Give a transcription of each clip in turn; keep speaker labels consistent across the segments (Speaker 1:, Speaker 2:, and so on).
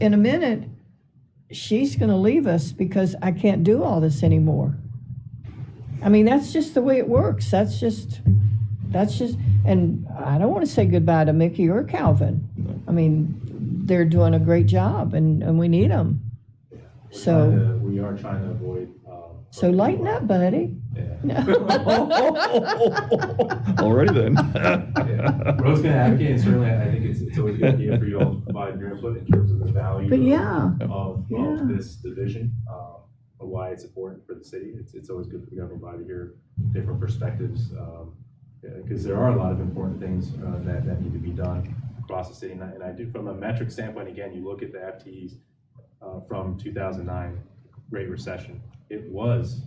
Speaker 1: in a minute, she's going to leave us because I can't do all this anymore. I mean, that's just the way it works. That's just, that's just, and I don't want to say goodbye to Mickey or Calvin. I mean, they're doing a great job and, and we need them.
Speaker 2: We're
Speaker 1: So-
Speaker 2: trying to- We are trying to avoid. um,
Speaker 1: So lighten up, buddy.
Speaker 2: Yeah.
Speaker 1: No.
Speaker 3: Alrighty
Speaker 2: Yeah. What I
Speaker 3: then.
Speaker 2: was going to advocate, and certainly I think it's, it's always a good idea for you all to provide your input in terms of the value.
Speaker 1: But
Speaker 2: of-
Speaker 1: yeah,
Speaker 2: Of,
Speaker 1: Yeah.
Speaker 2: of this division, uh, of why it's important for the city. It's, it's always good for everybody to hear different perspectives. Because there are a lot of important things uh, that, that need to be done across the city. And I, and I do, from a metric standpoint, again, you look at the FTEs uh, from 2009 Great Recession. It was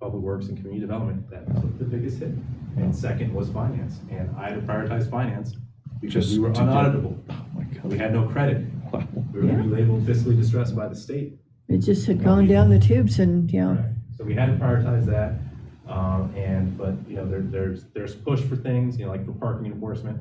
Speaker 2: Public Works and Community Development that took the biggest hit. And second was finance. And I had to prioritize finance because
Speaker 3: Just
Speaker 2: we were
Speaker 3: to get-
Speaker 2: unauditable.
Speaker 3: Oh my
Speaker 2: We
Speaker 3: God.
Speaker 2: had no credit.
Speaker 3: Wow.
Speaker 2: We were labeled fiscally distressed by the state.
Speaker 1: it just had gone down the tubes and, yeah.
Speaker 2: Right. So we had to prioritize that. Um, and, but, you know, there, there's, there's push for things, you know, like for parking enforcement.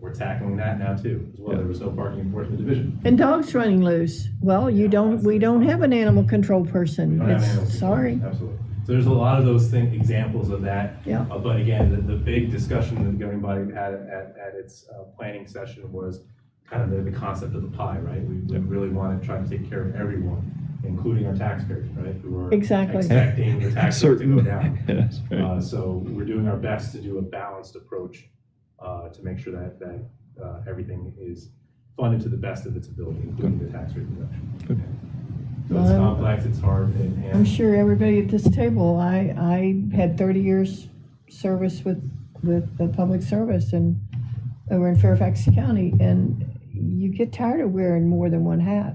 Speaker 2: We're tackling that now too, as well. There was no parking enforcement division.
Speaker 1: And dogs running loose. Well, you don't, we don't have an animal control
Speaker 2: We
Speaker 1: person.
Speaker 2: don't have animals
Speaker 1: It's,
Speaker 2: control.
Speaker 1: sorry.
Speaker 2: Absolutely. So there's a lot of those things, examples of that.
Speaker 1: Yeah.
Speaker 2: Uh, But again, the, the big discussion that the governing body had at, at its uh, planning session was kind of the, the concept of the pie, right? We we really want to try to take care of everyone, including our taxpayers, right? Who are
Speaker 1: Exactly.
Speaker 2: Expecting the tax rate to go
Speaker 3: Certain.
Speaker 2: down.
Speaker 3: Yes, right.
Speaker 2: Uh, So we're doing our best to do a balanced approach uh, to make sure that, that uh, everything is funded to the best of its ability, including the tax rate
Speaker 3: Good.
Speaker 2: reduction. So it's
Speaker 1: Well,
Speaker 2: complex, it's hard, and. and-
Speaker 1: I'm sure everybody at this table, I, I had 30 years service with, with the public service and over in Fairfax County, and you get tired of wearing more than one hat.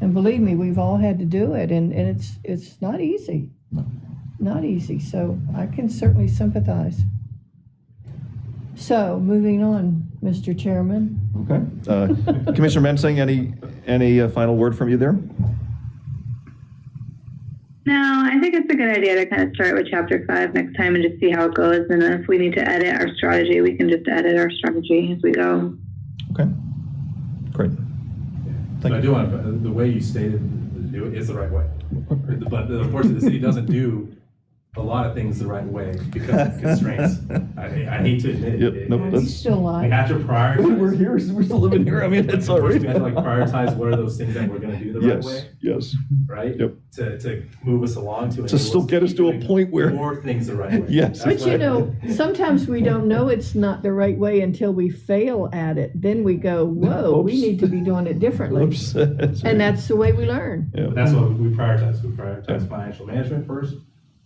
Speaker 1: And believe me, we've all had to do it, and, and it's, it's not easy. Not easy, so I can certainly sympathize. So, moving on, Mr. Chairman.
Speaker 3: Okay. Uh, Commissioner Mensing, any, any uh, final word from you there?
Speaker 4: No, I think it's a good idea to kind of start with chapter five next time and just see how it goes. And if we need to edit our strategy, we can just edit our strategy as we go.
Speaker 3: Okay. Great.
Speaker 2: Yeah.
Speaker 3: Thank
Speaker 2: But I
Speaker 3: you.
Speaker 2: do want, to the way you stated to do it is the right way. But unfortunately, the city doesn't do a lot of things the right way because of constraints. I, I hate to admit
Speaker 3: Yeah,
Speaker 2: it. it.
Speaker 3: nope,
Speaker 2: it's-
Speaker 1: He's
Speaker 3: that's-
Speaker 1: still
Speaker 2: We
Speaker 1: alive.
Speaker 2: have to prioritize.
Speaker 3: We're here, we're still living here. I mean, it's all
Speaker 2: First,
Speaker 3: right.
Speaker 2: we have to like prioritize what are those things that we're gonna do the right
Speaker 3: Yes,
Speaker 2: way,
Speaker 3: yes.
Speaker 2: right?
Speaker 3: Yep.
Speaker 2: To, to move us along to.
Speaker 3: To still get us to a point where,
Speaker 2: More things the right way.
Speaker 3: Yes.
Speaker 2: That's
Speaker 1: But you
Speaker 2: what-
Speaker 1: know, sometimes we don't know it's not the right way until we fail at it. Then we go, whoa, we
Speaker 3: Oops.
Speaker 1: need to be doing it differently.
Speaker 3: oops.
Speaker 1: And that's the way we learn.
Speaker 2: But That's what we prioritize. We prioritize financial management first.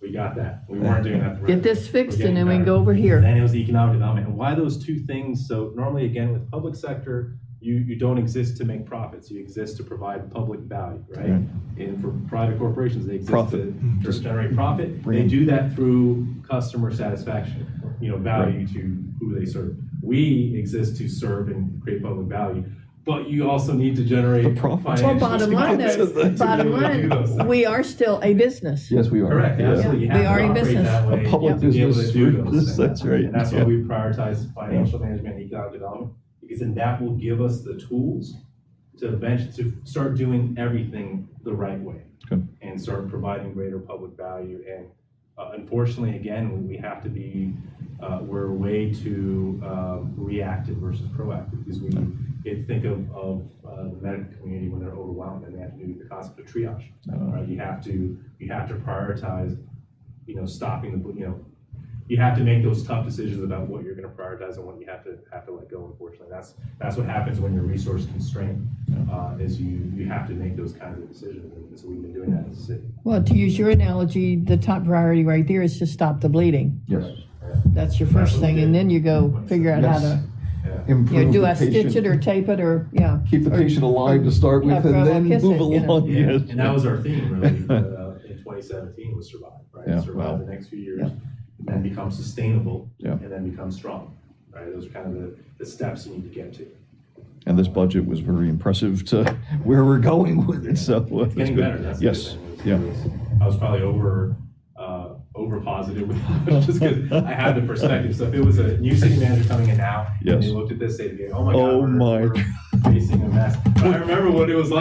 Speaker 2: We got that. We weren't doing that. the right
Speaker 1: Get
Speaker 2: way.
Speaker 1: this fixed
Speaker 2: We're
Speaker 1: and
Speaker 2: getting
Speaker 1: then we can
Speaker 2: better.
Speaker 1: go over
Speaker 2: And
Speaker 1: here.
Speaker 2: then it was the economic development. And why those two things? So normally, again, with public sector, you, you don't exist to make profits. You exist to provide public value, right?
Speaker 3: Right.
Speaker 2: And for private corporations, they exist
Speaker 3: Profit.
Speaker 2: to to generate profit.
Speaker 3: Bring
Speaker 2: They
Speaker 3: in-
Speaker 2: do that through customer satisfaction, you know, value to who they serve. We exist to serve and create public value, but you also need to generate
Speaker 3: The profit.
Speaker 1: Well,
Speaker 2: financial
Speaker 1: bottom line
Speaker 2: profits to
Speaker 1: though,
Speaker 2: be
Speaker 1: bottom
Speaker 2: able to do those
Speaker 1: line,
Speaker 2: things.
Speaker 1: we are still a business.
Speaker 3: Yes, we are.
Speaker 2: Correct,
Speaker 3: Yes.
Speaker 2: absolutely. You
Speaker 1: They
Speaker 2: have
Speaker 1: are
Speaker 2: to
Speaker 1: a
Speaker 2: operate
Speaker 1: business.
Speaker 2: that
Speaker 3: A
Speaker 2: way
Speaker 3: public
Speaker 2: to be able to
Speaker 3: business.
Speaker 2: do those
Speaker 3: Business,
Speaker 2: things.
Speaker 3: that's right,
Speaker 2: And that's why
Speaker 3: yeah.
Speaker 2: we prioritize financial management and economic development, because then that will give us the tools to bench, to start doing everything the right way.
Speaker 3: Good.
Speaker 2: And start providing greater public value. And uh, unfortunately, again, we have to be, uh, we're way too um, reactive versus proactive, because we, it- think of, of uh, the medical community when they're overwhelmed and they have to do the concept of triage. Right, you have to, you have to prioritize, you know, stopping the, you know, you have to make those tough decisions about what you're gonna prioritize and what you have to, have to let go, unfortunately. That's, that's what happens when you're resource constrained, uh, is you, you have to make those kinds of decisions, and so we've been doing that as a city.
Speaker 1: Well, to use your analogy, the top priority right there is to stop the bleeding.
Speaker 3: Yes.
Speaker 1: That's your first thing, and then you go figure out how to, you know,
Speaker 3: Improve
Speaker 1: do
Speaker 3: the
Speaker 1: I stitch it
Speaker 3: patient.
Speaker 1: or tape it or, yeah.
Speaker 3: Keep the
Speaker 1: or-
Speaker 3: patient alive to start
Speaker 1: Yeah,
Speaker 3: with and
Speaker 1: grab a
Speaker 3: then
Speaker 1: kiss
Speaker 3: move
Speaker 1: it, you know.
Speaker 3: along.
Speaker 2: Yeah,
Speaker 3: Yes.
Speaker 2: and that was our theme really uh, in 2017 was survive,
Speaker 3: Yeah,
Speaker 2: right? Survive
Speaker 3: wow.
Speaker 2: the next few years,
Speaker 1: Yeah.
Speaker 2: and then become sustainable,
Speaker 3: Yeah.
Speaker 2: and then become strong, right? Those are kind of the, the steps you need to get to.
Speaker 3: And this budget was very impressive to where we're going with it, so. uh, that's
Speaker 2: Getting
Speaker 3: good.
Speaker 2: better, that's the good
Speaker 3: Yes,
Speaker 2: thing. It's-
Speaker 3: yeah.
Speaker 2: it's- I was probably over, uh, over positive, just because I had the perspective. So if it was a new city manager coming in now, and
Speaker 3: Yes.
Speaker 2: they looked at this, they'd be, oh my God.
Speaker 3: Oh
Speaker 2: we're-
Speaker 3: my
Speaker 2: we're- facing a mess. But I remember what it was like.